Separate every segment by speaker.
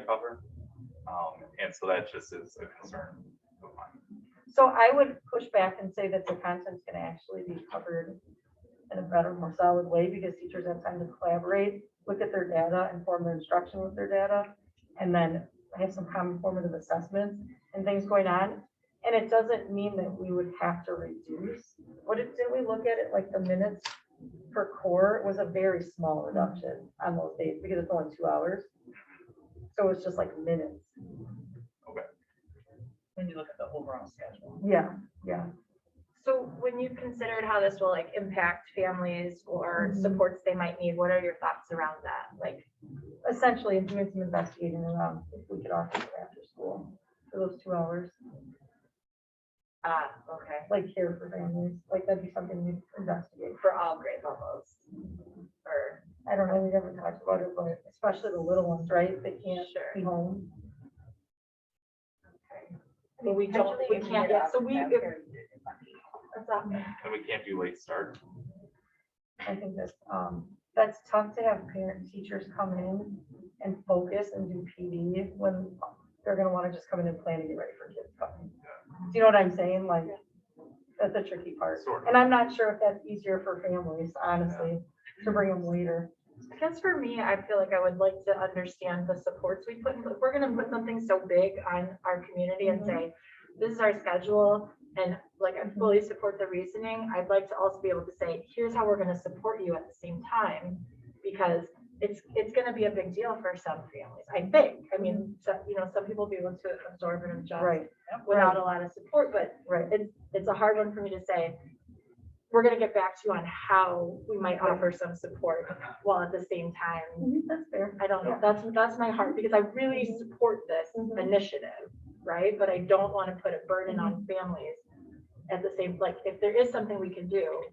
Speaker 1: cover. Um, and so that just is a concern of mine.
Speaker 2: So I would push back and say that the content's gonna actually be covered in a better, more solid way because teachers have time to collaborate, look at their data, inform their instruction with their data, and then have some common formative assessments and things going on. And it doesn't mean that we would have to reduce. What did, did we look at it like the minutes per core It was a very small reduction on those days because it's only two hours. So it's just like minutes.
Speaker 3: when you look at the overall schedule.
Speaker 2: Yeah, yeah.
Speaker 4: So when you've considered how this will like impact families or
Speaker 2: Mhm.
Speaker 4: supports they might need, what are your thoughts around that? Like,
Speaker 2: essentially doing some investigating around if we could offer it after school for those two hours,
Speaker 4: ah, okay,
Speaker 2: like care for families, like that'd be something we investigate.
Speaker 4: for all grade levels? Or,
Speaker 2: I don't know, we never talked about it, but especially the little ones, right? They can't
Speaker 4: Sure.
Speaker 2: be home.
Speaker 4: I mean, we don't, we can't, yeah, so we, if- that's not-
Speaker 1: And we can't do late start.
Speaker 2: I think that's, um, that's tough to have parent teachers come in and focus and do PD when they're gonna wanna just come in and plan to get ready for kids coming. Do you know what I'm saying? Like, that's the tricky part.
Speaker 1: Sort of.
Speaker 2: And I'm not sure if that's easier for families, honestly, to bring them later.
Speaker 4: I guess for me, I feel like I would like to understand the supports we put, in. if we're gonna put something so big on our community and
Speaker 2: Mhm.
Speaker 4: say, this is our schedule, and like, I
Speaker 2: Mhm.
Speaker 4: fully support the reasoning, I'd like to also be able to say, here's how we're gonna support you at the same time, because it's, it's gonna be a big deal for some families, I think, I mean, so, you know, some people be able to absorb and adjust
Speaker 2: Right,
Speaker 4: without a lot of support, but
Speaker 2: right.
Speaker 4: it's a hard one for me to say. We're gonna get back to you on how we might offer some support, while at the same time,
Speaker 2: That's fair.
Speaker 4: I don't know, that's, that's my heart, because I really support this
Speaker 2: Mhm.
Speaker 4: initiative, right? But I don't want to put a burden
Speaker 2: Mm-hmm.
Speaker 4: on families at the same, like, if there is something we can do,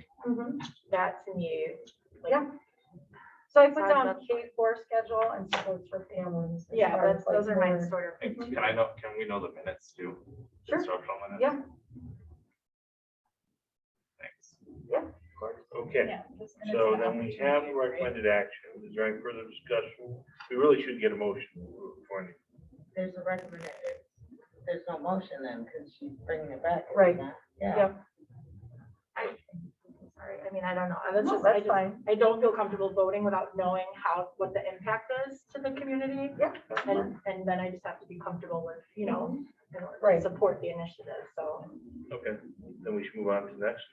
Speaker 4: that to me, like,
Speaker 2: Yeah. So I put
Speaker 4: Sounds
Speaker 2: down
Speaker 4: good.
Speaker 2: K four schedule and supports for families. as
Speaker 4: yeah,
Speaker 2: far
Speaker 4: that's,
Speaker 2: as, like,
Speaker 4: those are my
Speaker 2: more-
Speaker 4: sort of.
Speaker 1: And can I know, can we know the minutes too?
Speaker 2: Sure.
Speaker 1: Instructional minutes?
Speaker 2: Yeah.
Speaker 1: Thanks.
Speaker 5: Okay, so then we have the recommended action. Is there any further discussion? We really should get a motion for any.
Speaker 3: There's a recommended, there's no motion then, because she's bringing it back.
Speaker 2: Right.
Speaker 3: Yeah.
Speaker 2: Yeah,
Speaker 4: Sorry, I mean, I don't know, I was
Speaker 2: No,
Speaker 4: just, I
Speaker 2: that's
Speaker 4: just,
Speaker 2: fine.
Speaker 4: I don't feel comfortable voting without knowing how, what the impact is to the community.
Speaker 1: That's fine.
Speaker 4: And, and then I just have to be comfortable with, you know, in order to
Speaker 2: Right.
Speaker 4: support the initiative, so.
Speaker 5: Okay, then we should move on to the next.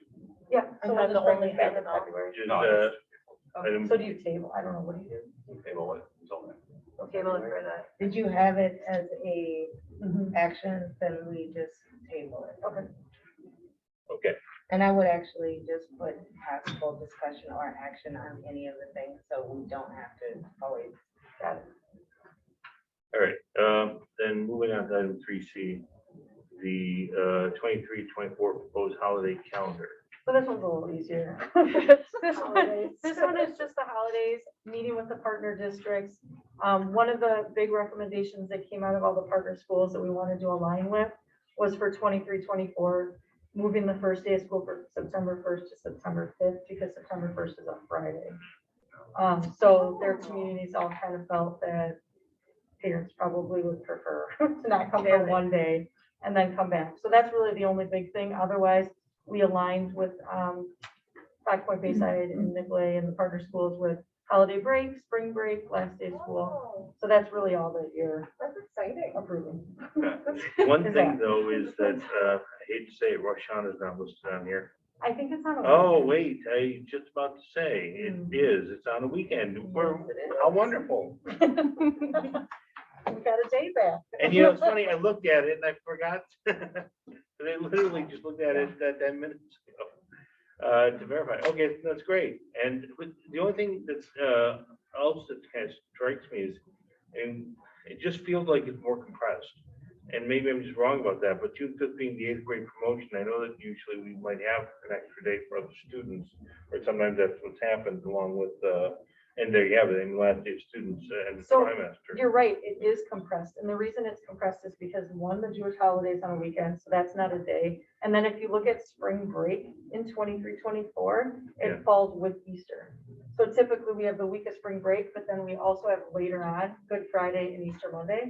Speaker 2: Yeah.
Speaker 4: I'm
Speaker 2: so we'll
Speaker 4: not the
Speaker 2: just bring
Speaker 4: only
Speaker 2: it back in
Speaker 4: fan of-
Speaker 2: February.
Speaker 5: Just,
Speaker 1: No,
Speaker 5: uh,
Speaker 1: it's-
Speaker 5: item,
Speaker 2: So do you table? I don't know, what do you
Speaker 1: we table it until then.
Speaker 2: do?
Speaker 4: Table it for the.
Speaker 3: Did you have it as a Mm-hmm.
Speaker 2: Mhm.
Speaker 3: action, then we just table it?
Speaker 2: Okay,
Speaker 5: okay,
Speaker 3: And I would actually just put possible discussion or action on any of the things, so we don't have to always.
Speaker 2: got it.
Speaker 5: all right. Um, Then moving on to item three C, the uh, 23-24 proposed holiday calendar.
Speaker 2: So this one's a little easier. This one,
Speaker 4: Holidays.
Speaker 2: this one is just the holidays, meeting with the partner districts. Um, one of the big recommendations that came out of all the partner schools that we wanted to align with was for 23, 24, moving the first day of school from September first to September fifth, because September first is a Friday. Um, so their communities all kind of felt that parents probably would prefer to not come for one day and then come back. So that's really the only big thing. Otherwise, we aligned with, um, Black Point Bayside and Midway and the partner schools with holiday break, spring break, last day of school. So that's really all that you're
Speaker 4: That's exciting.
Speaker 2: approving.
Speaker 5: One
Speaker 2: Is
Speaker 5: thing though is that, uh, I hate to say it, Rosh Hashanah is not listed on here.
Speaker 2: I think it's on. a
Speaker 5: Oh,
Speaker 2: weekend.
Speaker 5: wait, I just about to say, it
Speaker 2: Hmm.
Speaker 5: is, it's on a weekend. We're, how wonderful.
Speaker 2: We got a day back.
Speaker 5: And you know, it's funny, I looked at it and I forgot. And I literally just looked at it that ten minutes ago uh, to verify. Okay, that's great. And with- the only thing that's uh, else that kind of strikes me is, and it just feels like it's more compressed. And maybe I'm just wrong about that, but June fifth being the eighth grade promotion, I know that usually we might have an extra day for other students. Or sometimes that's what's happened along with, uh, and there you have it, and last day of students uh, and the
Speaker 2: So,
Speaker 5: trimester.
Speaker 2: You're right, it is compressed, and the reason it's compressed is because, one, the Jewish holidays on a weekend, so that's not a day. And then if you look at spring break in 23, 24,
Speaker 5: Yeah.
Speaker 2: it falls with Easter. So typically, we have the week of spring break, but then we also have later on Good Friday and Easter Monday.